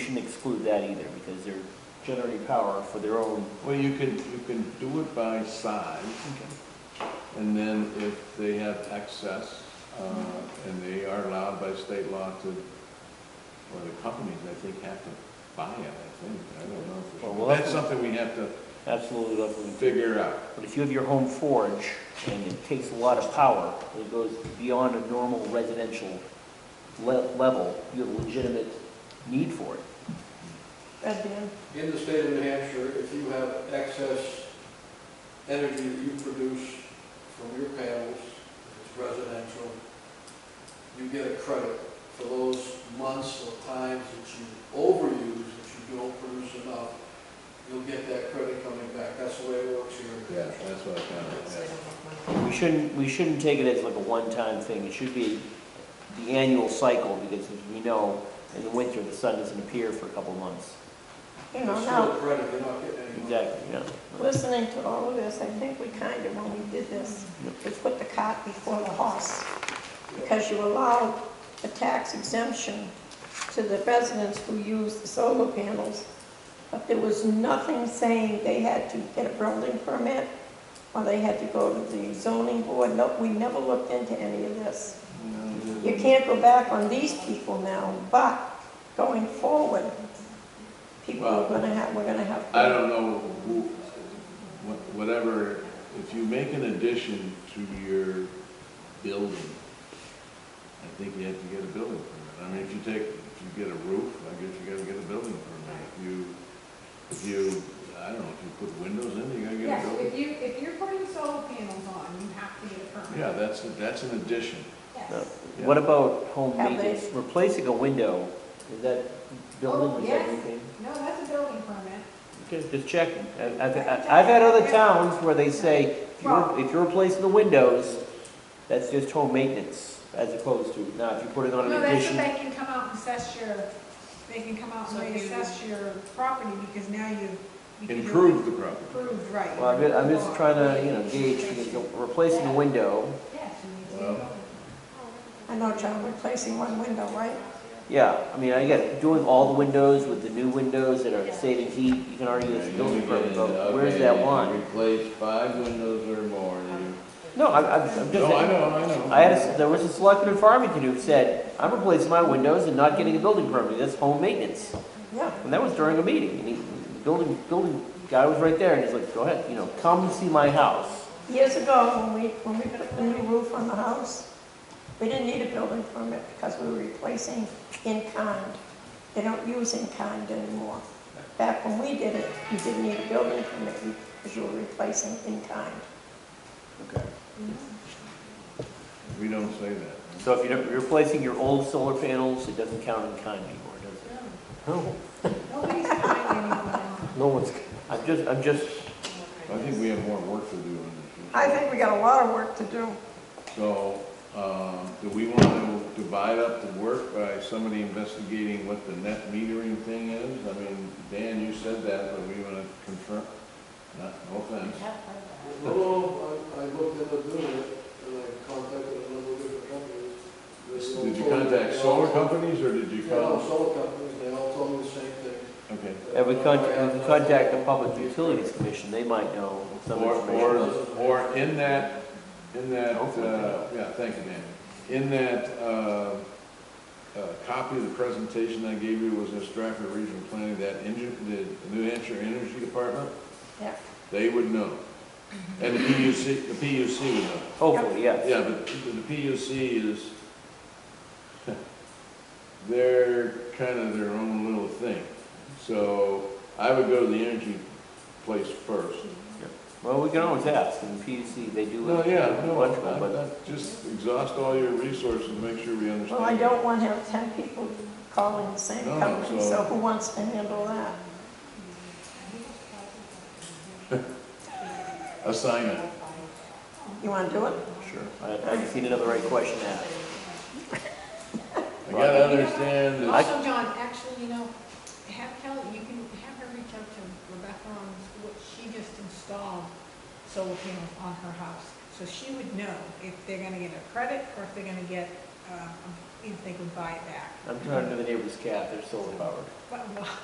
shouldn't exclude that either, because they're generating power for their own. Well, you can, you can do it by size, and then if they have excess, uh, and they are allowed by state law to, or the companies, I think, have to buy it, I think, I don't know. for Well, sure. we'll That's have something we have to Absolutely, lovely. figure out. But if you have your home forge and it takes a lot of power, and it goes beyond a normal residential le- level, you have a legitimate need for it. At the end, In the state of New Hampshire, if you have excess energy that you produce from your panels, if it's residential, you get a credit for those months or times that you overuse, that you don't produce enough, you'll get that credit coming back. That's the way it works here. in New Yeah, Hampshire. that's what I found out. We shouldn't, we shouldn't take it as like a one-time thing. It should be the annual cycle, because as we know, in the winter, the sun doesn't appear for a couple of months. you It's know, still now, a credit, you're not getting any money. Exactly, yeah. listening to all of this, I think we kind of, when we did this, we put the cart before the horse. Because you allowed a tax exemption to the residents who use the solar panels. But there was nothing saying they had to get a building permit or they had to go to the zoning board. No, we never looked into any of this. You can't go back on these people now, but going forward, people are gonna have, we're gonna have. I don't know who, wha- whatever, if you make an addition to your building, I think you have to get a building permit. I mean, if you take, if you get a roof, I guess you gotta get a building permit. If you, if you, I don't know, if you put windows in, you gotta get a Yes, building. if you, if you're putting solar panels on, you have to get a permit. Yeah, that's, that's an addition. No. Yes. What about home Have they- maintenance? Replacing a window, is that building, is that yes. anything? No, that's a building permit. Okay, Just checking. I- I've, I've had other towns where they say, if you're, if you're replacing the windows, that's just home maintenance, as opposed to, now, if you're putting on No, an that's what addition. they can come out and assess your, they can come out and So you- reassess your property because now you've. you can do it Improve the property. Improved, right. Well, I'm, ju- I'm just trying to, you know, gauge, because replacing a window, Yes, you need to Well- go. I know, John, replacing one window, right? yeah, I mean, I get, doing all the windows with the new windows that are saving heat, you can argue it's a building permit, but where's that line? Replace five windows or more. No, No, I'm, I'm I'm just I saying, know, I know. I had, a- there was a selectman in Farmington who said, I'm replacing my windows and not getting a building permit, that's home maintenance. Yeah. And that was during a meeting, and he, the building, building guy was right there, and he's like, go ahead, you know, come see my house. Years ago, when we, when we put the new roof on the house, we didn't need a building permit because we were replacing in kind. They don't use in kind anymore. Back when we did it, you didn't need a building permit because you were replacing in kind. We don't say that. So if you're replacing your old solar panels, it doesn't count in kind anymore, does it? No, Nobody's buying anyone else. no one's, I'm just, I'm just I think we have more work to do in this. I think we got a lot of work to do. So, um, do we want to divide up the work by somebody investigating what the net metering thing is? I mean, Dan, you said that, but we want to confirm, not, no offense. No, no, I, I looked into doing it, and I contacted a number of different companies. They all Did you told me- contact they all solar told- companies, or did you Yeah, no, call? solar companies, they all told me the same thing. Okay. And we contact, we can contact the Public Utilities Commission, they might know some Or, or, information. or in that, in that, Hopefully. uh, yeah, thank you, Dan. In that, uh, uh, copy of the presentation I gave you was in Stratford Regional Planning, that engine, the New Hampshire Energy Department? Yeah. They would know. And the PUC, the PUC would know. Hopefully, yes. Yeah, but the PUC is, they're kind of their own little thing. So I would go to the energy place first. Well, we can always ask, and PUC, they do. No, yeah, a no, bunch of them, but- I- I- just exhaust all your resources and make sure we understand. Well, I don't want to have ten people calling the same No, company, so- so who wants to handle that? Assignment. You want to do it? Sure. I, I just need another right question asked. I gotta understand that, Also, John, actually, you know, have Kelly, you can have her reach out to Rebecca on what she just installed solar panels on her house. So she would know if they're gonna get a credit or if they're gonna get a uh, if they could buy it back. I'm trying to know the neighbor's cat, they're solar powered. But, well,